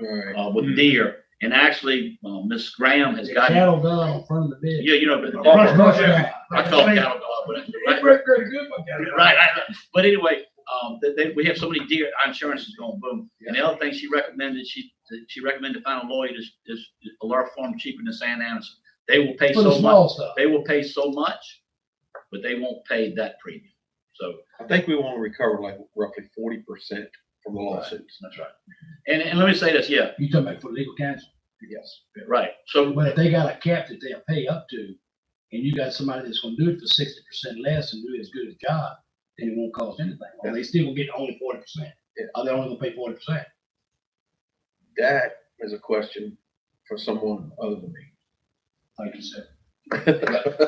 Alright. uh, with deer. And actually, uh, Ms. Graham has got, Hmm. Cattle dog from the bit. yeah, you know, but the Brush, dog, brush it out. I call it cattle dog, but it's- right, right. I- But anyway, um, that they, we have so many deer, our insurance is going boom. And the other thing she recommended, she, she recommended find a lawyer is, is a law firm cheaper than San Anderson. They will pay For the so much, small stuff. they will pay so much, but they won't pay that premium. So I think we want to recover like roughly forty percent from the lawsuits. that's right. And, and let me say this, yeah, You talking about for legal counsel? Yes. right. So But if they got a cap that they'll pay up to, and you got somebody that's gonna do it for sixty percent less and do as good a job, then it won't cost anything. Well, they still will get only forty percent. Yeah. Are they only gonna pay forty percent? That is a question for someone other than me. Like you said. But,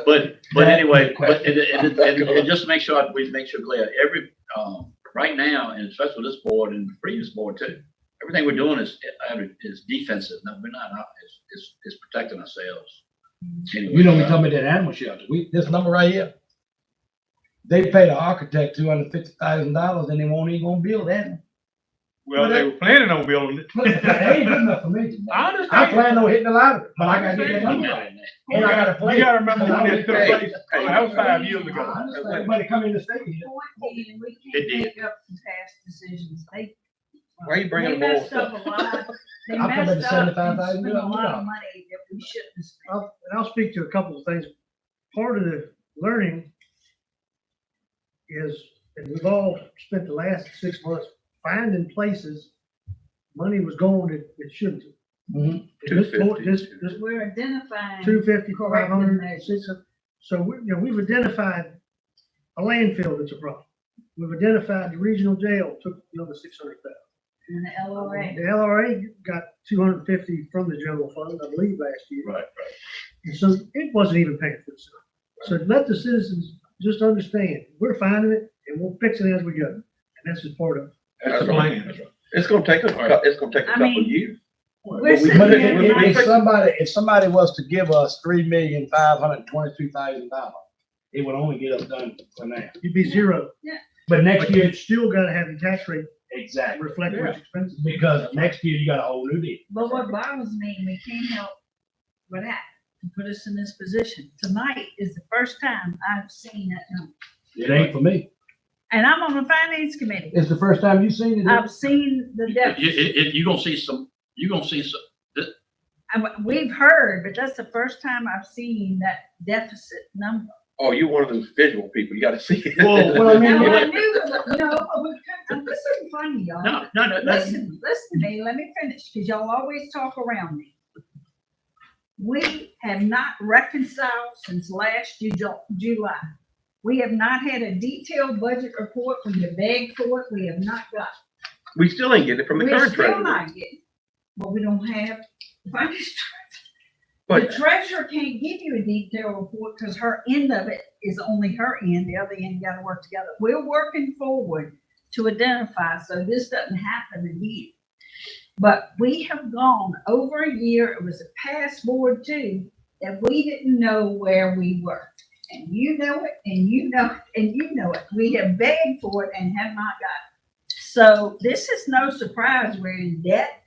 but That anyway, but, question. and, and, and, and just make sure, I- we make sure clear, every, um, right now, and especially this board and the previous board too, everything we're doing is, uh, is defensive, no, we're not, uh, it's, it's, it's protecting ourselves. Anyway, You know, we uh, talking about that animal shelter. We, this number right here. They paid an architect two hundred fifty thousand dollars and they won't even gonna build that. Well, they were planning on building it. But that ain't good enough for me. I I understand. plan on hitting the lottery, uh, but I gotta get that I'm number. not in that. And I gotta play. You gotta remember when that took Hey, place, oh, that was five years ago. I understand Everybody come in the state here. Fourteen, we It did. can't make up some past decisions, they. Why are you bringing they up old messed up a lot. They I'm talking about the messed up and 75,000 spent a lot million. of money that we shouldn't have spent. I'll, and I'll speak to a couple of things. Part of the learning is, and we've all spent the last six months finding places money was going that it shouldn't. Mhm. This, board- this, 250. this We're identifying. two fifty, five Correct, and hundred, that's- six hundred. So we, you know, we've identified a landfill that's a problem. We've identified the regional jail took another six hundred thousand. In the LOA. The LRA got two hundred and fifty from the general fund, I believe, last year. Right, right. And so it wasn't even paying for itself. So let the citizens just understand, we're finding it and we'll fix it as we go. And that's just part of it. That's the plan. It's gonna take us, a cou- it's gonna take a I couple of mean- years. We're we- sitting But here if, if- tonight- if somebody, if somebody was to give us three million, five hundred twenty-two thousand dollars, it would only get us done for now. You'd be zero, But but next year, you'd still gotta have the tax rate exactly, reflect those expenses. because next year you got a whole new deal. But what bothers me, we can't help with that, to put us in this position. Tonight is the first time I've seen that number. It ain't for me. And I'm on the finance committee. It's the first time you've seen it. I've seen the You, deficit. you, you- you gonna see some, you gonna see some, I'm- We've heard, but that's the first time I've seen that deficit number. Oh, you're one of those visual people. You gotta see it. Whoa, Well, I mean, Now, I it- knew, no, I'm- I'm this isn't funny, y'all. no, no, no, that's, Listen, listen to me, let me finish, because y'all always talk around me. We have not reconciled since last Ju- Ju- July. We have not had a detailed budget report when you begged for it, we have not got. We still ain't getting it from the We're current still treasurer. not getting, but we don't have, the finance The But treasurer can't give you a detailed report because her end of it is only her end, the other end gotta work together. We're working forward to identify, so this doesn't happen again. But we have gone over a year, it was a past board too, that we didn't know where we were. And you know it, and you know, it, and you know it. We have begged for it and have not got it. So this is no surprise, we're in debt,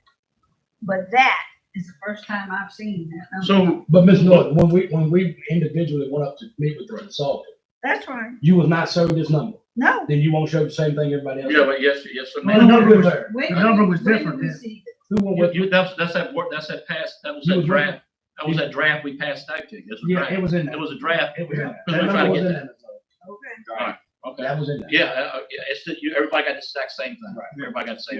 but that is the first time I've seen that. number. so, But Ms. Norton, when we, when we individually went up to meet with the consultant, That's right. you was not showed this number, No. then you won't show the same thing everybody else. yeah, but yes, yes, or The no. number was there. When The did number we- was when did different we then. see it? Who went You, with- you, that's, that's that work, that's that pass, that was You that was draft, that was that draft we passed out to, that's a Yeah, it draft. was in there. It was a draft, It was in there. We're That trying to number was get in that. there. Okay. okay. That was in there. Yeah, uh, uh, yeah, it's that you, everybody got the exact same thing. Right. Everybody got the same.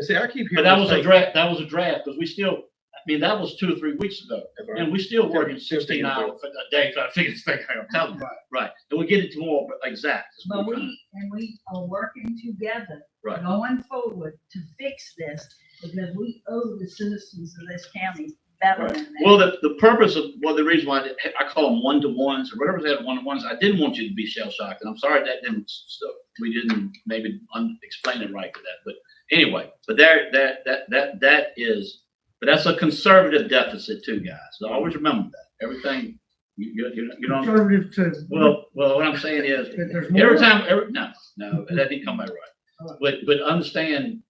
see, I keep hearing. But that was a this- draft, that was a draft, because we still, I mean, that was two or three weeks ago. And we still working sixteen hours a day trying to figure this thing out, I'm telling you. Right. And we'll get it tomorrow, but exact. That's But what we're trying. we, and we are working together, Right. going forward to fix this, because we owe the citizens of this county better Right. than Well, that. the, the purpose of, well, the reason why I- I call them one-to-ones or whatever they had one-to-ones, I didn't want you to be shell-shocked. And I'm sorry that didn't, so we didn't maybe un- explain it right to that. But anyway, but there, that, that, that, that is, but that's a conservative deficit too, guys. So always remember that. Everything, you, you- you, know- you know, Conservative to. well, well, what I'm saying is, If there's more. Every time, every, no, no, that didn't come out right. But, but understand,